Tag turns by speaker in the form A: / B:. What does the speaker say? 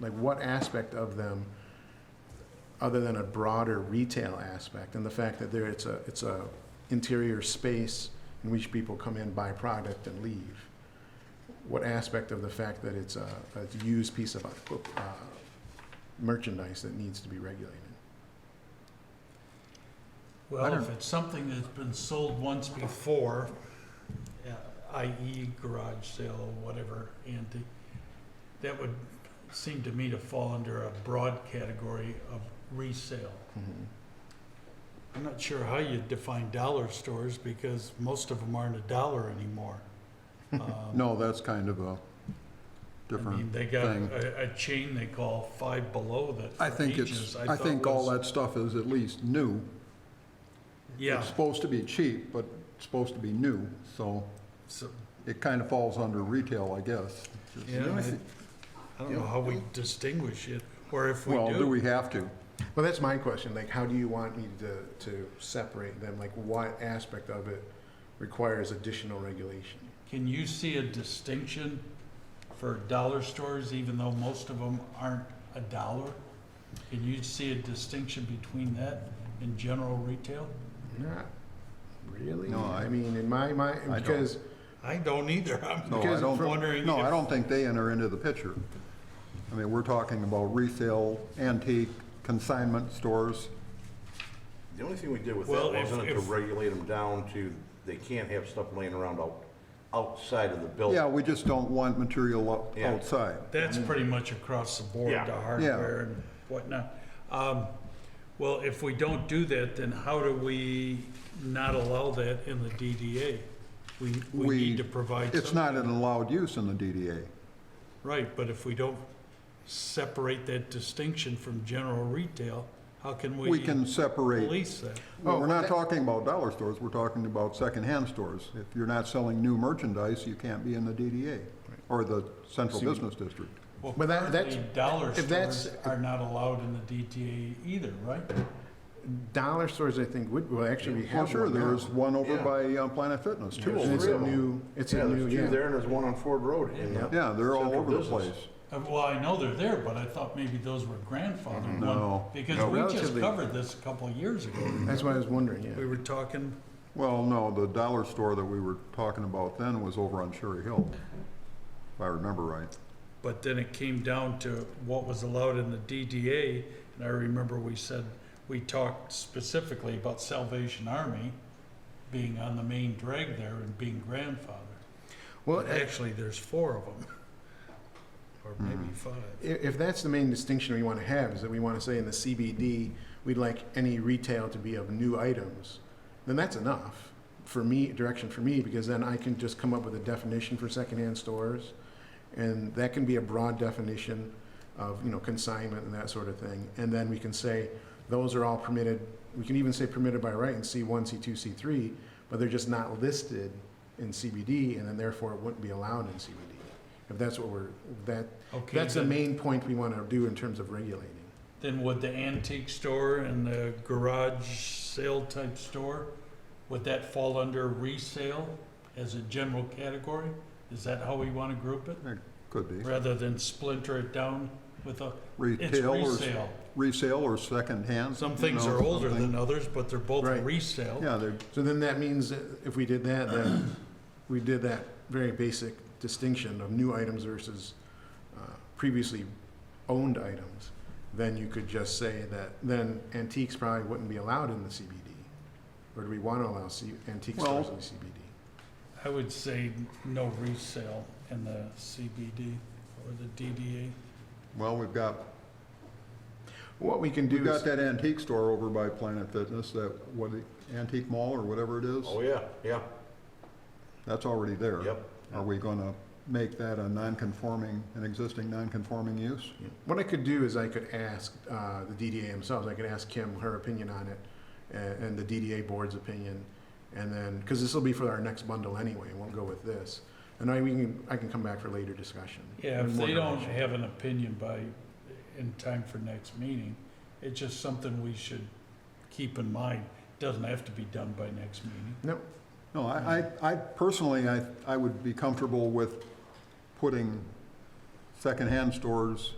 A: like what aspect of them, other than a broader retail aspect, and the fact that there, it's a, it's a interior space in which people come in, buy product, and leave. What aspect of the fact that it's a, a used piece of, uh, merchandise that needs to be regulated?
B: Well, if
C: don't-
B: it's something that's been sold once before, uh, i.e. garage sale, whatever, antique, that would seem to me to fall under a broad category of resale.
A: Mhm.
B: I'm not sure how you define dollar stores because most of them aren't a dollar anymore. Um,
C: No, that's kind of a
B: I mean,
C: different,
B: they got
C: thing.
B: a, a chain they call Five Below that.
C: I
B: for
C: think
B: ages
C: it's, I
B: thought
C: think all
B: was-
C: that stuff is at least new.
B: Yeah,
C: It's supposed to be cheap, but it's supposed to be new, so
B: so,
C: it kind of falls under retail, I guess.
B: yeah,
D: know, I
B: I
D: think-
B: I don't know how we distinguish it, or if we
C: Well, do we have to?
A: Well, that's my question, like, how do you want me to, to separate them? Like, what aspect of it requires additional regulation?
B: Can you see a distinction for dollar stores, even though most of them aren't a dollar? Can you see a distinction between that and general retail?
A: Not really.
C: No, I-
A: I mean, in my mind,
C: don't.
A: because,
B: I don't either. I'm
C: No, I
B: just
C: don't-
B: wondering.
C: No,
B: if-
C: I don't think they enter into the picture. I mean, we're talking about resale, antique, consignment stores.
D: The only thing we did with
B: Well,
D: that
B: if-
D: wasn't it to
B: if-
D: regulate them down to, they can't have stuff laying around out, outside of the
B: Oh.
D: building.
C: Yeah, we just don't want material o-
D: Yeah.
C: outside.
B: That's pretty much across the board,
D: Yeah.
B: the hardware and whatnot. Um, Well, if we don't do that, then how do we not allow that in the DDA? We, we
C: We-
B: need to provide
C: It's
B: some,
C: not an allowed use in the DDA.
B: right, but if we don't separate that distinction from general retail, how can
C: We
B: we
C: can separate
B: police that?
C: Well, we're
A: Oh,
C: not
A: that-
C: talking about dollar stores, we're talking about secondhand stores. If you're not selling new merchandise, you can't be in the DDA or the Central
A: See, we-
C: Business District.
B: Well,
A: But that- that's-
B: currently, dollar
A: if that's-
B: stores are not allowed in the DDA either, right?
A: dollar stores, I think, would, well, actually, we
C: Well,
A: have
C: sure,
A: one
C: there
A: now.
C: is one over
D: Yeah.
C: by uh, Planet Fitness,
D: Yeah,
C: too.
D: there's
A: And it's
D: three
A: a
D: of 'em.
A: new, it's
D: Yeah,
A: a
D: there's
A: new,
D: two there
A: yeah.
D: and there's one on Ford Road. in the
C: Yeah, they're all
D: Central
C: over the
D: Business.
C: place.
B: Uh, Well, I know they're there, but I thought maybe those were grandfathered.
C: No.
B: one- Because
A: No,
B: we just
A: relatively-
B: covered this a couple of years ago.
A: That's what I was wondering,
B: We
A: yeah.
B: were talking,
C: Well, no, the dollar store that we were talking about then was over on Cherry Hill, if I remember right.
B: but then it came down to what was allowed in the DDA. And I remember we said, we talked specifically about Salvation Army being on the main drag there and being grandfathered.
A: Well,
B: But actually, there's four of them, or maybe five.
A: if, if that's the main distinction we want to have, is that we want to say in the CBD, we'd like any retail to be of new items, then that's enough for me, direction for me, because then I can just come up with a definition for secondhand stores. And that can be a broad definition of, you know, consignment and that sort of thing. And then we can say, those are all permitted, we can even say permitted by right in C one, C two, C three, but they're just not listed in CBD, and then therefore it wouldn't be allowed in CBD. If that's what we're, that,
B: Okay,
A: that's the
B: then-
A: main point we want to do in terms of regulating.
B: Then would the antique store and the garage sale type store, would that fall under resale as a general category? Is that how we want to group it,
C: Could be.
B: rather than splinter it down with a, it's
C: Retail or, s-
B: resale.
C: resale or secondhand.
B: Some
C: you
B: things
C: know,
B: are older
C: something.
B: than others, but they're both
A: Right.
B: resale.
C: Yeah, they're,
A: So then that means that if we did that, then we did that very basic distinction of new items versus uh, previously owned items. Then you could just say that, then antiques probably wouldn't be allowed in the CBD. Or do we want to allow C- antique
C: Well-
A: stores in the CBD?
B: I would say no resale in the CBD or the DDA.
C: well, we've got
A: What we can
C: We've
A: do
C: got
A: is,
C: that antique store over by Planet Fitness, that, what, Antique Mall or whatever it is?
D: Oh, yeah, yeah,
C: That's already there.
D: yep.
C: Are we gonna make that a non-conforming, an existing non-conforming use?
A: what I could do is I could ask uh, the DDA themselves, I could ask Kim her opinion on it a- and the DDA board's opinion. And then, because this will be for our next bundle anyway, it won't go with this. And I, we can, I can come back for later discussion.
B: Yeah, if
A: More
B: they don't
A: direction.
B: have an opinion by, in time for next meeting, it's just something we should keep in mind. Doesn't have to be done by next meeting.
A: No,
C: No, I,
D: Mm-hmm.
C: I, I personally, I, I would be comfortable with putting secondhand stores